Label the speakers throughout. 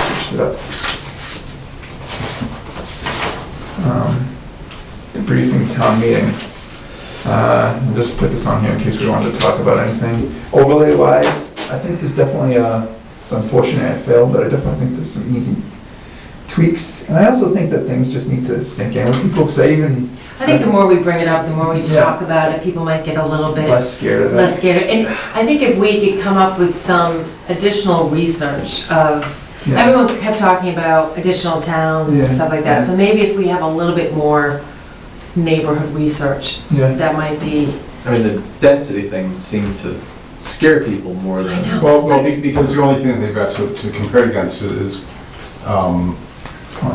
Speaker 1: it up. Um, Debriefing town meeting. Uh, I'll Just put this on here in case we wanted to talk about anything. Overlay wise, I think there's definitely, uh, it's unfortunate it failed, but I definitely think there's some easy tweaks. And I also think that things just need to sink in with people, because I even
Speaker 2: I think the more we bring it up, the more we
Speaker 1: Yeah.
Speaker 2: talk about it, people might get a little bit
Speaker 1: less scared of it.
Speaker 2: less scared. And I think if we could come up with some additional research of,
Speaker 1: Yeah.
Speaker 2: everyone kept talking about additional towns
Speaker 1: Yeah.
Speaker 2: and stuff like that. So maybe if we have a little bit more neighborhood research,
Speaker 1: Yeah,
Speaker 2: that might be,
Speaker 3: I mean, the density thing seems to scare people more than.
Speaker 2: I know.
Speaker 4: Well, well, be- because the only thing they've got to, to compare it against is, um,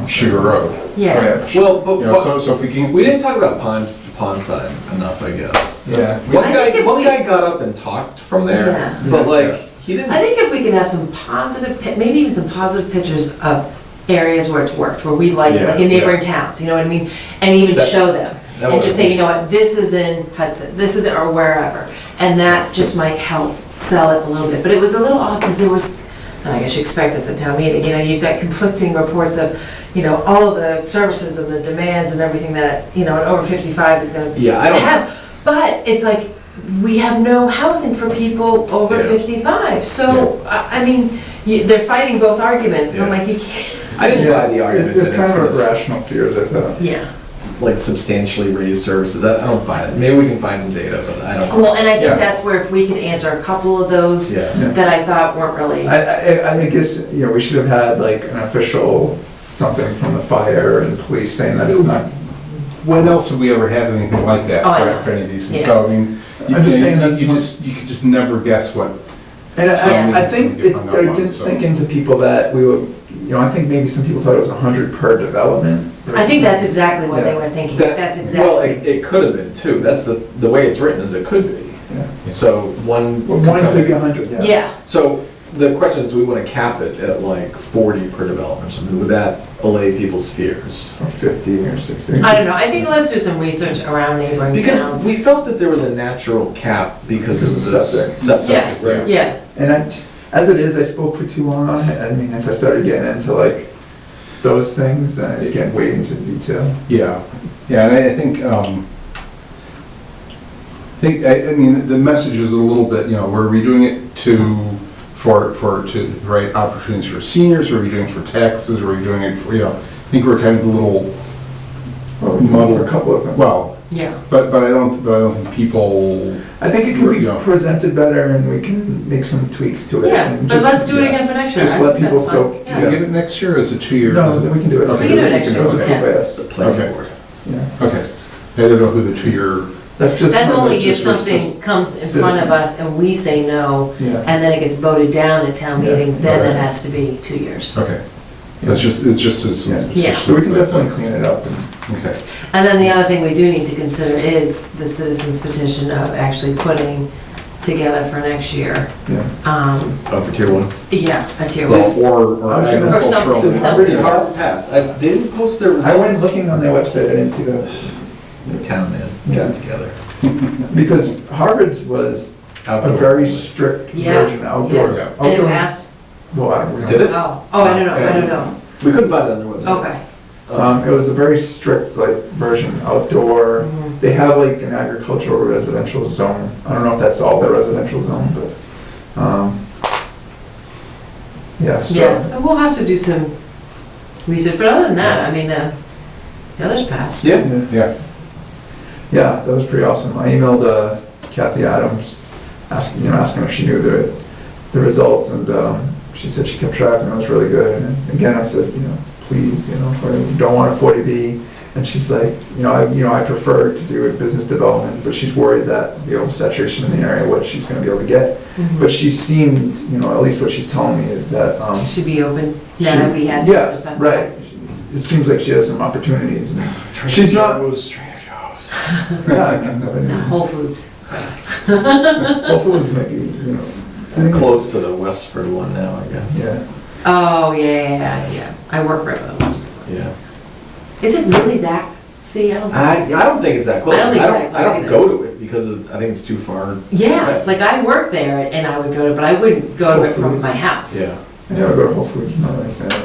Speaker 4: Sugar Road.
Speaker 1: Oh,
Speaker 2: yeah.
Speaker 3: Well, but,
Speaker 4: You know, so, so if we can.
Speaker 3: we didn't talk about ponds, pond side enough, I guess. That's-
Speaker 2: I
Speaker 3: One
Speaker 2: think
Speaker 3: guy,
Speaker 2: if
Speaker 3: one
Speaker 2: we-
Speaker 3: guy got up and talked from there,
Speaker 2: Yeah.
Speaker 3: but
Speaker 4: Yeah.
Speaker 3: like, he didn't.
Speaker 2: I think if we could have some positive, pi- maybe even some positive pictures of areas where it's worked, where we like,
Speaker 3: Yeah,
Speaker 2: like in neighboring towns, you know what I mean? And even
Speaker 3: That-
Speaker 2: show them.
Speaker 3: that
Speaker 2: And
Speaker 3: would-
Speaker 2: just say, you know what, this is in Hudson, this is, or wherever. And that just might help sell it a little bit. But it was a little odd because there was, I guess you expect this at town meeting, you know, you've got conflicting reports of, you know, all of the services and the demands and everything that, you know, an over 55 is going to
Speaker 3: Yeah, I don't,
Speaker 2: have. But it's like, we have no housing for people over
Speaker 3: Yeah.
Speaker 2: 55. So, I I mean, you- they're fighting both arguments. and I'm
Speaker 3: Yeah.
Speaker 2: like, you can't,
Speaker 3: I didn't
Speaker 1: Yeah,
Speaker 3: buy the argument
Speaker 1: It was
Speaker 3: that
Speaker 1: kind of
Speaker 3: it's gonna s-
Speaker 1: irrational fears, I thought.
Speaker 2: yeah.
Speaker 3: like substantially raise services. I I don't buy it. Maybe we can find some data, but I don't.
Speaker 2: Well, and I
Speaker 4: Yeah.
Speaker 2: think that's where if we could answer a couple of those
Speaker 3: Yeah.
Speaker 2: that I thought weren't really,
Speaker 1: I, I, I guess, you know, we should have had like an official something from the fire and police saying that it's not.
Speaker 4: When else have we ever had anything like that
Speaker 2: Oh, I
Speaker 4: for-
Speaker 2: know.
Speaker 4: for any of these? And
Speaker 2: Yeah.
Speaker 4: So, I mean, you
Speaker 1: I'm just
Speaker 4: you-
Speaker 1: saying that's
Speaker 4: you
Speaker 1: one-
Speaker 4: just, you could just never guess what,
Speaker 1: And
Speaker 2: Yeah.
Speaker 1: I, I think it, it didn't sink into people that we were, you know, I think maybe some people thought it was a hundred per development.
Speaker 2: I think that's exactly what they
Speaker 1: Yeah.
Speaker 2: were thinking.
Speaker 3: That-
Speaker 2: That's
Speaker 3: Well, it,
Speaker 2: exactly.
Speaker 3: it could have been too. That's the, the way it's written is it could be.
Speaker 1: Yeah.
Speaker 3: So one.
Speaker 1: Well, one could be a hundred, yeah.
Speaker 2: Yeah,
Speaker 3: So the question is, do we want to cap it at like 40 per development or something? Would that allay people's fears?
Speaker 1: Or fifty or sixty.
Speaker 2: I don't know. I think let's do some research around neighboring
Speaker 3: Because
Speaker 2: towns.
Speaker 3: we felt that there was a natural cap because of the
Speaker 1: Because of septic.
Speaker 3: septic,
Speaker 4: Yeah.
Speaker 3: right?
Speaker 2: Yeah,
Speaker 1: And I, as it is, I spoke for too long on it. I mean, if I started getting into like those things, then I just get way into detail.
Speaker 4: yeah. Yeah, and I I think, um, I think, I, I mean, the message is a little bit, you know, we're redoing it to, for, for, to, the right, opportunities for seniors, are we doing it for taxes, are we doing it for, you know, I think we're kind of a little,
Speaker 1: Well, we can go for a couple of things.
Speaker 4: well,
Speaker 2: yeah.
Speaker 4: But, but I don't, but I don't think people,
Speaker 1: I think it can be
Speaker 4: Yeah.
Speaker 1: presented better and we can make some tweaks to it.
Speaker 2: Yeah,
Speaker 1: and
Speaker 2: but
Speaker 1: just-
Speaker 2: let's do it
Speaker 4: yeah.
Speaker 2: again for next year.
Speaker 1: Just
Speaker 2: I
Speaker 1: let
Speaker 2: think
Speaker 1: people
Speaker 2: that's fine.
Speaker 1: soak-
Speaker 2: Yeah.
Speaker 4: you get it next year, or is it two years?
Speaker 1: No, then we can do it.
Speaker 4: Okay,
Speaker 2: We can do it next year.
Speaker 1: Those are
Speaker 2: Yeah.
Speaker 1: by us.
Speaker 3: The planning
Speaker 4: Okay.
Speaker 3: board.
Speaker 1: Yeah.
Speaker 4: Okay, I don't know who the two-year,
Speaker 1: That's just.
Speaker 2: That's only
Speaker 1: that's
Speaker 2: if
Speaker 1: just for
Speaker 2: something comes in front of
Speaker 1: citizens.
Speaker 2: us and we say no,
Speaker 1: some- Yeah.
Speaker 2: and then it gets voted down at town
Speaker 1: Yeah.
Speaker 2: meeting, then it
Speaker 4: Okay.
Speaker 2: has to be two years.
Speaker 4: okay, that's just, it's just citizens.
Speaker 1: Yeah.
Speaker 2: Yeah.
Speaker 1: So we can definitely clean it up. and-
Speaker 4: Okay,
Speaker 2: And then the other thing we do need to consider is the citizens petition of actually putting together for next year,
Speaker 1: Yeah.
Speaker 2: um,
Speaker 3: Oh, for tier one.
Speaker 2: yeah, a tier one.
Speaker 4: well, or, or
Speaker 1: I was gonna-
Speaker 2: Or something,
Speaker 4: agricultural.
Speaker 2: something.
Speaker 1: Somebody
Speaker 3: Tier one
Speaker 1: else?
Speaker 3: pass. I they didn't post their results.
Speaker 1: I went looking on their website, I didn't see that,
Speaker 3: The town man,
Speaker 1: Yeah.
Speaker 3: got together.
Speaker 1: because Harvard's was a
Speaker 3: Outdoor.
Speaker 1: very strict
Speaker 2: Yeah,
Speaker 1: version outdoor.
Speaker 4: yeah.
Speaker 2: And it
Speaker 1: outdoor-
Speaker 2: passed,
Speaker 1: Well, I don't know.
Speaker 3: Did it?
Speaker 2: oh, oh, I don't know, I don't know,
Speaker 3: We couldn't find it on their website.
Speaker 2: okay.
Speaker 1: Um, it was a very strict like version outdoor. They have like an agricultural residential zone. I don't know if that's all the residential zone, but, um, yeah,
Speaker 2: Yeah,
Speaker 1: so.
Speaker 2: so we'll have to do some research, but other than that, I mean, the, the others passed.
Speaker 3: Yeah.
Speaker 1: Yeah.
Speaker 4: Yeah,
Speaker 1: Yeah, that was pretty awesome. I emailed uh, Kathy Adams, asking, you know, asking if she knew the, the results, and um, she said she kept track, and it was really good. And again, I said, you know, please, you know, I don't want a 40B. And she's like, you know, I, you know, I prefer to do a business development, but she's worried that the oversaturation in the area, what she's going to be able to get.
Speaker 2: Mhm.
Speaker 1: But she seemed, you know, at least what she's telling me, that um,
Speaker 2: Should be open, now that we had.
Speaker 1: She-
Speaker 2: the
Speaker 1: yeah,
Speaker 2: other stuff
Speaker 1: right.
Speaker 2: passed.
Speaker 1: it seems like she has some opportunities. And, She's not-
Speaker 3: Trader Joe's.
Speaker 1: yeah, I mean, I mean,
Speaker 2: Whole Foods.
Speaker 1: Whole Foods might be, you know, things-
Speaker 3: Close to the Westford one now, I guess.
Speaker 1: Yeah.
Speaker 2: Oh, yeah, yeah, yeah, yeah. I work right by the Westford ones.
Speaker 3: Yeah.
Speaker 2: Is it really that, see, I don't.
Speaker 3: I, I don't think it's that close.
Speaker 2: I don't think
Speaker 3: I
Speaker 2: it's
Speaker 3: don't,
Speaker 2: that
Speaker 3: I don't
Speaker 2: close
Speaker 3: go to it because it's- I think it's too far.
Speaker 2: Yeah,
Speaker 3: Right.
Speaker 2: like I work there and I would go to, but I wouldn't go to it from my house.
Speaker 3: Yeah.
Speaker 1: I never go to Whole Foods in my life. and